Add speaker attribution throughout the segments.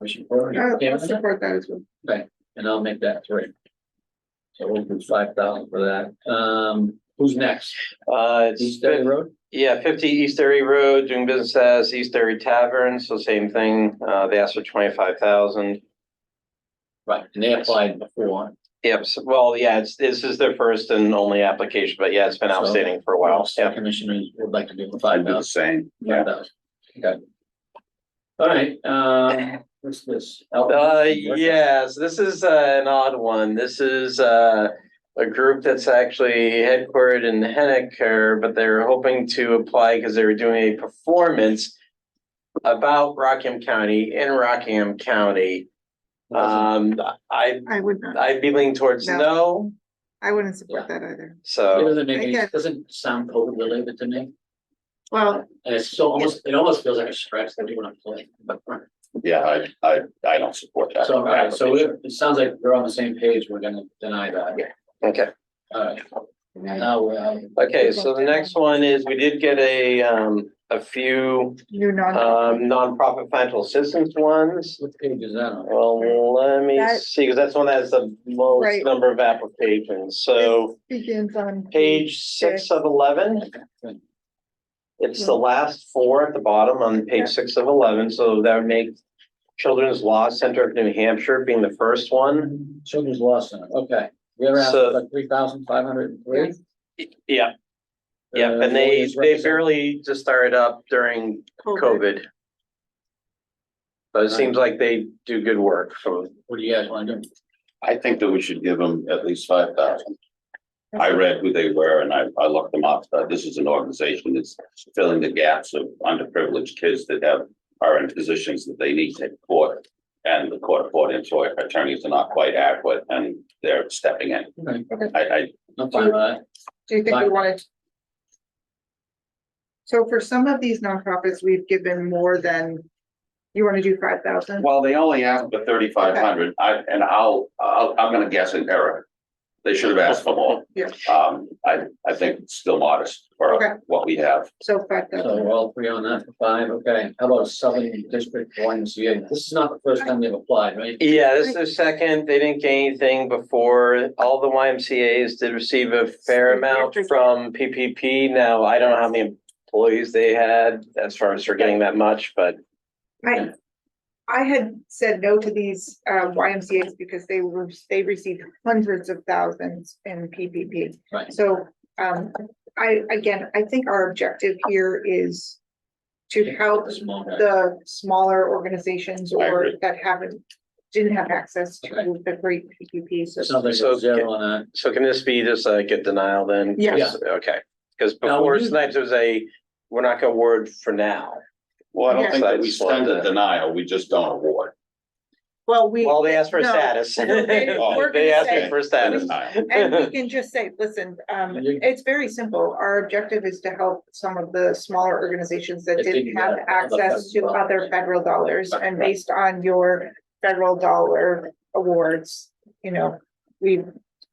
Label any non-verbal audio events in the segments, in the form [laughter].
Speaker 1: Motion for it,
Speaker 2: I'll- I'll
Speaker 1: Canada?
Speaker 2: support that as well.
Speaker 1: and I'll make that three. So we'll do five thousand for that. Um, who's next?
Speaker 3: Uh, it's
Speaker 1: East Bay Road?
Speaker 3: Yeah, fifty East Derry Road, doing business as East Derry Tavern, so same thing, uh, they asked for twenty-five thousand.
Speaker 1: Right, and they applied before.
Speaker 3: Yep, so- well, yeah, it's, this is their first and only application, but yeah, it's been
Speaker 1: So-
Speaker 3: outstanding for a while,
Speaker 1: So
Speaker 3: yeah.
Speaker 1: Commissioners would like to do five thousand.
Speaker 4: Same,
Speaker 1: Five thousand. Okay. All right, um, what's this?
Speaker 3: Uh, yes, this is uh, an odd one. This is uh, a group that's actually headquartered in Hennecker, but they're hoping to apply because they were doing a performance about Rockham County in Rockham County. Um, I,
Speaker 2: I would not,
Speaker 3: I'd be leaning towards
Speaker 2: No.
Speaker 3: no,
Speaker 2: I wouldn't support that either.
Speaker 1: It
Speaker 3: so,
Speaker 1: doesn't make any,
Speaker 2: Okay.
Speaker 1: it doesn't sound COVID related to me,
Speaker 2: Well,
Speaker 1: and it's so almost, it almost feels like a stretch that we want to play, but.
Speaker 4: yeah, I, I, I don't support that.
Speaker 1: So, all right, so it, it sounds like we're on the same page, we're gonna deny that.
Speaker 3: okay.
Speaker 1: All right, now, we're, um,
Speaker 3: Okay, so the next one is, we did get a, um, a few
Speaker 2: new non.
Speaker 3: um, nonprofit financial assistance ones.
Speaker 1: what page is that on?
Speaker 3: Well, let me
Speaker 2: That-
Speaker 3: see, because that's one that has the
Speaker 2: Right.
Speaker 3: most number of applications, so
Speaker 2: This Begins on.
Speaker 3: page six of eleven. It's the last four at the bottom on
Speaker 2: Mm-hmm. Yeah.
Speaker 3: page six of eleven, so that would make Children's Law Center of New Hampshire being the first one.
Speaker 1: Children's Law Center, okay, we're at
Speaker 3: So-
Speaker 1: like three thousand five hundred and three.
Speaker 3: Yeah, yeah, and they, they barely just started up during COVID. But it seems like they do good work from,
Speaker 1: What do you guys wanna do?
Speaker 4: I think that we should give them at least five thousand. I read who they were and I, I looked them up. Uh, this is an organization that's filling the gaps of underprivileged kids that have, are in positions that they need to court. And the court brought into it, attorneys are not quite adequate and they're stepping in.
Speaker 1: Okay,
Speaker 4: I, I,
Speaker 1: I'm fine with that,
Speaker 2: Do you think we wanted? So for some of these nonprofits, we've given more than, you want to do five thousand?
Speaker 4: Well, they only asked for thirty-five hundred, I, and I'll, I'll, I'm gonna guess an error. They should have asked for more.
Speaker 2: Yeah.
Speaker 4: Um, I, I think it's still modest
Speaker 2: Okay.
Speaker 4: for what we have.
Speaker 2: So five
Speaker 1: so
Speaker 2: thousand.
Speaker 1: we're all three on that for five, okay, how about Southern District One CA, this is not the first time they've applied, right?
Speaker 3: Yeah, this is their second. They didn't get anything before. All the YMCA's did receive a fair amount from PPP. Now, I don't know how many employees they had as far as they're getting that much, but
Speaker 2: I, I had said no to these uh YMCA's because they were, they received hundreds of thousands in PPP.
Speaker 1: Right.
Speaker 2: So um, I, again, I think our objective here is to help
Speaker 1: Small guy.
Speaker 2: the smaller organizations
Speaker 4: I
Speaker 2: or
Speaker 4: agree.
Speaker 2: that haven't, didn't have access to
Speaker 1: Okay.
Speaker 2: the great PQP.
Speaker 1: It
Speaker 2: So
Speaker 1: sounds like
Speaker 3: So-
Speaker 1: a zero on that.
Speaker 3: so can this be just a get denial then?
Speaker 2: Yeah.
Speaker 1: Yeah.
Speaker 3: Okay, because
Speaker 1: Now,
Speaker 3: before
Speaker 1: when you-
Speaker 3: tonight, there was a, we're not gonna word for now.
Speaker 4: Well, I don't think that we
Speaker 3: Yes.
Speaker 4: send a denial, we just don't award.
Speaker 2: Well, we,
Speaker 3: Well, they asked for a
Speaker 2: No.
Speaker 3: status.
Speaker 2: No, they- we're
Speaker 3: [laughs] They
Speaker 2: gonna
Speaker 3: asked me
Speaker 2: say-
Speaker 3: for a status.
Speaker 4: Denial.
Speaker 2: and we can just say, listen, um,
Speaker 1: You-
Speaker 2: it's very simple. Our objective is to help some of the smaller organizations that
Speaker 1: That
Speaker 2: didn't
Speaker 1: didn't
Speaker 2: have
Speaker 1: have other
Speaker 2: access to
Speaker 1: federal dollars.
Speaker 2: other federal dollars.
Speaker 1: Right,
Speaker 2: And
Speaker 1: right.
Speaker 2: based on your federal dollar awards, you know, we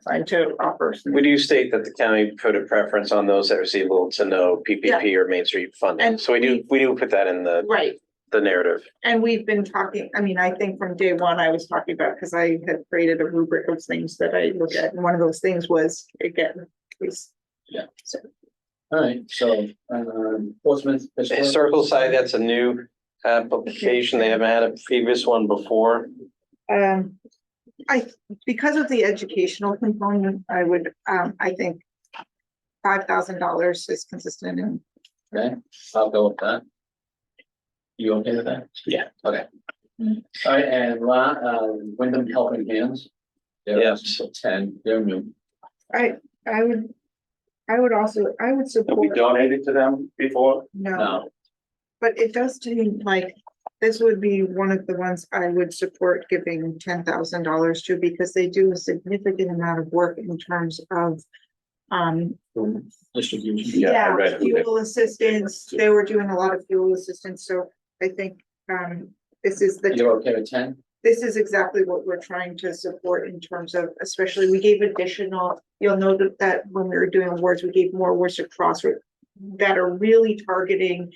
Speaker 2: tried to offer. some-
Speaker 3: We do state that the county put a preference on those that receive little to no PPP or Main Street funding.
Speaker 2: And
Speaker 3: So we do, we do put that in the
Speaker 2: Right,
Speaker 3: the narrative.
Speaker 2: And we've been talking, I mean, I think from day one, I was talking about, because I had created a rubric of things that I look at, and one of those things was, again, is.
Speaker 1: Yeah.
Speaker 2: So,
Speaker 1: All right, so, um, Portsmouth.
Speaker 3: Historical Society, that's a new application. They haven't had a previous one before.
Speaker 2: um, I, because of the educational component, I would, um, I think. Five thousand dollars is consistent and
Speaker 1: Okay, I'll go with that. You okay with that?
Speaker 4: Yeah.
Speaker 1: Okay.
Speaker 2: Mm.
Speaker 1: All right, and La, uh, Wyndham Helping Hands. They're
Speaker 3: Yeah.
Speaker 1: also Ten, they're new.
Speaker 2: I, I would, I would also, I would
Speaker 4: Have we
Speaker 2: support,
Speaker 4: donated to them before?
Speaker 2: no,
Speaker 1: No,
Speaker 2: but it does seem like. This would be one of the ones I would support giving ten thousand dollars to because they do a significant amount of work in terms of. Um,
Speaker 1: distribution.
Speaker 4: Yeah, I
Speaker 2: yeah,
Speaker 4: read it.
Speaker 2: fuel assistance, they were doing a lot of fuel assistance, so I think, um, this is the.
Speaker 1: You're okay with ten?
Speaker 2: This is exactly what we're trying to support in terms of, especially, we gave additional, you'll know that, that when we were doing awards, we gave more awards to Crossroads. That are really targeting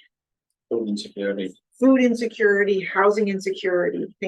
Speaker 1: Food insecurity.
Speaker 2: food insecurity, housing insecurity, things